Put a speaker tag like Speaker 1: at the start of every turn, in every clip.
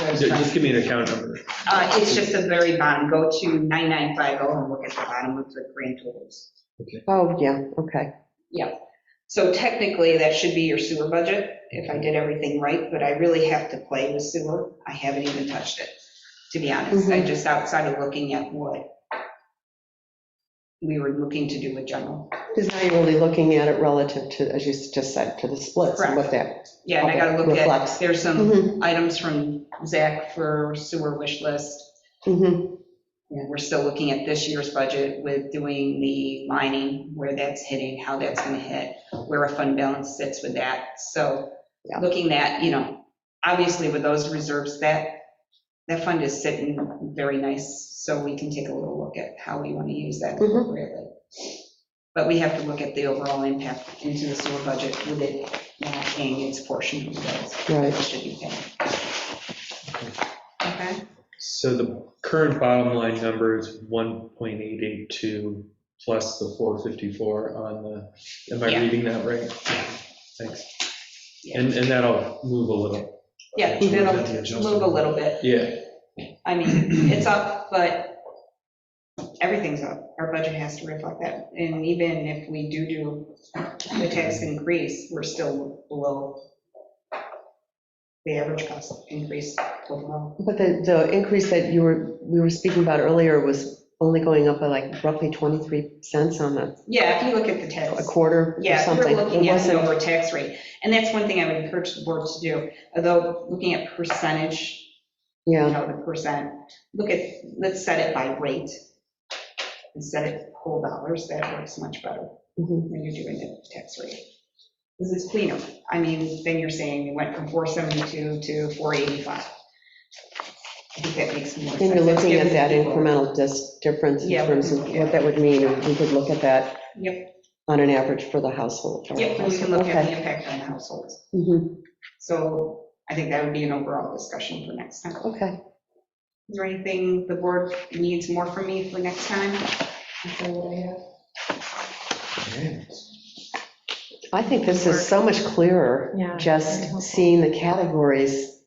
Speaker 1: was
Speaker 2: Ju-
Speaker 1: trying-
Speaker 2: Just give me an account number.
Speaker 1: Uh, It's just the very bottom, go to 9950 and look at the bottom of the green tools.
Speaker 3: Oh, yeah, okay.
Speaker 1: Yeah, so technically, that should be your sewer budget, if I did everything right, but I really have to play with sewer. I haven't even touched it, to be honest. I just outside of looking at what we were looking to do with general.
Speaker 3: Because now you're really looking at it relative to, as you just said, to the splits and what that.
Speaker 1: Yeah, and I gotta look at,
Speaker 3: Reflects.
Speaker 1: there's some
Speaker 3: Mhm,
Speaker 1: items from Zach for sewer wish list.
Speaker 3: mhm.
Speaker 1: And we're still looking at this year's budget with doing the lining, where that's hitting, how that's gonna hit, where a fund balance sits with that. So
Speaker 3: Yeah.
Speaker 1: looking at, you know, obviously with those reserves, that, that fund is sitting very nice, so we can take a little look at how we want to use that
Speaker 3: Mhm.
Speaker 1: appropriately. But we have to look at the overall impact into the sewer budget with it not paying its portion of the bills.
Speaker 3: Right.
Speaker 1: that it Should be paying. Okay?
Speaker 2: So the current bottom line number is 1.882 plus the 454 on the, am I
Speaker 1: Yeah.
Speaker 2: reading that right? Thanks.
Speaker 1: Yeah.
Speaker 2: And, and that'll move a little.
Speaker 1: Yeah, it'll move a little bit.
Speaker 2: Yeah,
Speaker 1: I mean, it's up, but everything's up. Our budget has to reflect that. And even if we do do the tax increase, we're still below the average cost increase overall.
Speaker 3: But the, the increase that you were, we were speaking about earlier was only going up by like roughly 23 cents on the,
Speaker 1: Yeah, if you look at the
Speaker 3: a
Speaker 1: tax,
Speaker 3: quarter or
Speaker 1: yeah, if
Speaker 3: something.
Speaker 1: you're looking
Speaker 3: It
Speaker 1: at the
Speaker 3: wasn't,
Speaker 1: over tax rate. And that's one thing I would encourage the board to do, although looking at percentage you
Speaker 3: yeah,
Speaker 1: know, the percent, look at, let's set it by rate. and set it whole dollars, that works much better
Speaker 3: Mhm.
Speaker 1: when you're doing the tax rate. This is cleaner. I mean, then you're saying it went from 472 to 485. I think that makes more sense.
Speaker 3: and you're looking at
Speaker 1: It's
Speaker 3: that
Speaker 1: giving people-
Speaker 3: incremental dis, difference
Speaker 1: Yeah.
Speaker 3: in terms of
Speaker 1: Yeah.
Speaker 3: what that would mean, and we could look at that
Speaker 1: Yep,
Speaker 3: on an average for the household.
Speaker 1: yep, and we can look at the impact on households.
Speaker 3: Mhm,
Speaker 1: So I think that would be an overall discussion for next time.
Speaker 3: Okay,
Speaker 1: Is there anything the board needs more from me for next time? Is that what I have?
Speaker 3: I think this is so much clearer,
Speaker 4: Yeah, very helpful.
Speaker 3: just seeing the categories,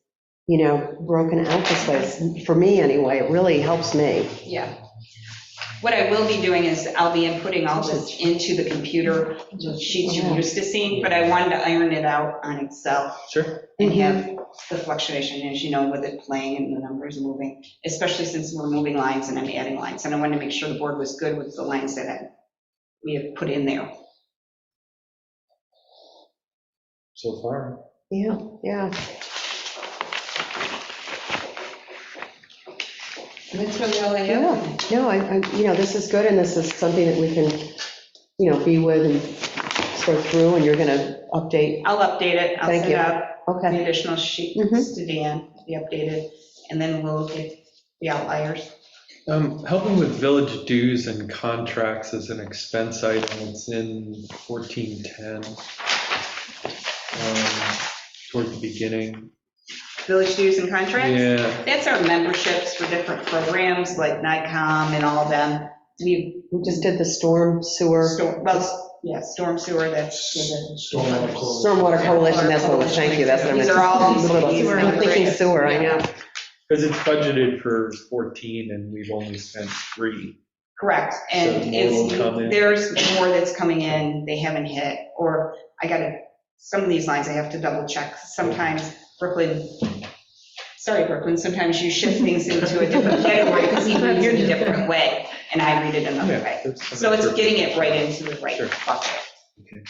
Speaker 3: you know, broken out this way, for me anyway, it really helps me.
Speaker 1: Yeah. What I will be doing is I'll be inputting all this into the computer sheets you're used to seeing, but I wanted to iron it out on Excel
Speaker 2: sure.
Speaker 1: and have the fluctuation, as you know, with it playing and the numbers moving, especially since we're moving lines and I'm adding lines. And I wanted to make sure the board was good with the lines that I- we have put in there.
Speaker 2: So far.
Speaker 3: Yeah, yeah.
Speaker 1: That's really all I
Speaker 3: Yeah, no, I, I- you know, this is good, and this is something that we can, you know, be with and sort through, and you're going to update.
Speaker 1: I'll update it. I'll
Speaker 3: Thank
Speaker 1: send
Speaker 3: you.
Speaker 1: out the
Speaker 3: Okay,
Speaker 1: additional sheets
Speaker 3: Mhm.
Speaker 1: to Dan, the updated, and then we'll get the outliers.
Speaker 2: Um, Helping with village dues and contracts is an expense item. It's in 1410. um, Toward the beginning.
Speaker 1: Village dues and contracts?
Speaker 2: Yeah.
Speaker 1: That's our memberships for different programs like NICOM and all of them. We,
Speaker 3: we just did the storm sewer,
Speaker 1: sto- well, yeah, storm sewer, that's.
Speaker 5: Stormwater closed.
Speaker 3: stormwater coalition, that's what, thank you, that's what I meant.
Speaker 1: These are all these-
Speaker 3: A little-
Speaker 1: these are
Speaker 3: I'm thinking
Speaker 1: integrated.
Speaker 3: sewer, I know.
Speaker 2: Because it's budgeted for 14 and we've only spent three.
Speaker 1: Correct,
Speaker 2: So
Speaker 1: and
Speaker 2: more
Speaker 1: it's,
Speaker 2: will come in.
Speaker 1: there's more that's coming in, they haven't hit, or I gotta, some of these lines I have to double check. Sometimes Brooklyn, sorry Brooklyn, sometimes you shift things into a different category because he reads it a different way and I read it another way. So it's getting it right into the right
Speaker 2: Sure.
Speaker 1: bucket.
Speaker 2: Okay.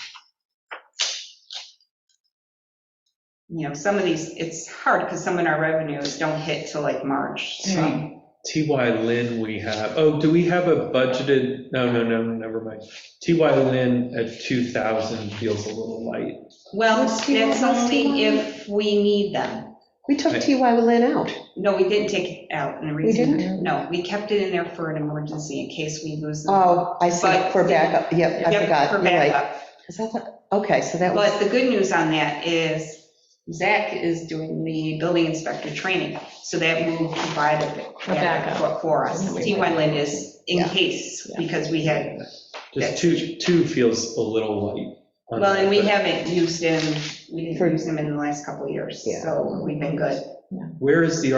Speaker 1: You know, some of these, it's hard because some of our revenues don't hit till like March, so.
Speaker 2: TY Lin we have, oh, do we have a budgeted, no, no, no, never mind. TY Lin at 2,000 feels a little light.
Speaker 1: Well,
Speaker 3: Let's see what
Speaker 1: that's
Speaker 3: else we
Speaker 1: only if we need them.
Speaker 3: We took TY Lynn out.
Speaker 1: No, we didn't take it out in the
Speaker 3: We
Speaker 1: reason. No, we kept it in there for an emergency in case we lose them.
Speaker 3: Oh,
Speaker 1: But-
Speaker 3: I see, for backup, yep, I
Speaker 1: Yep,
Speaker 3: forgot,
Speaker 1: for
Speaker 3: you're right.
Speaker 1: backup.
Speaker 3: Is that the- Okay, so that was,
Speaker 1: But the good news on that is Zach is doing the building inspector training, so that will provide a backup for-
Speaker 4: backup.
Speaker 1: for us. T1 Lynn is in
Speaker 3: Yeah.
Speaker 1: case,
Speaker 3: Yeah.
Speaker 1: because we had,
Speaker 2: Just two, two feels a little light. on
Speaker 1: well,
Speaker 2: that,
Speaker 1: and we
Speaker 2: but
Speaker 1: haven't used him, we didn't
Speaker 3: For-
Speaker 1: use him in the last couple of years,
Speaker 3: Yeah.
Speaker 1: so we've been good.
Speaker 2: Where is the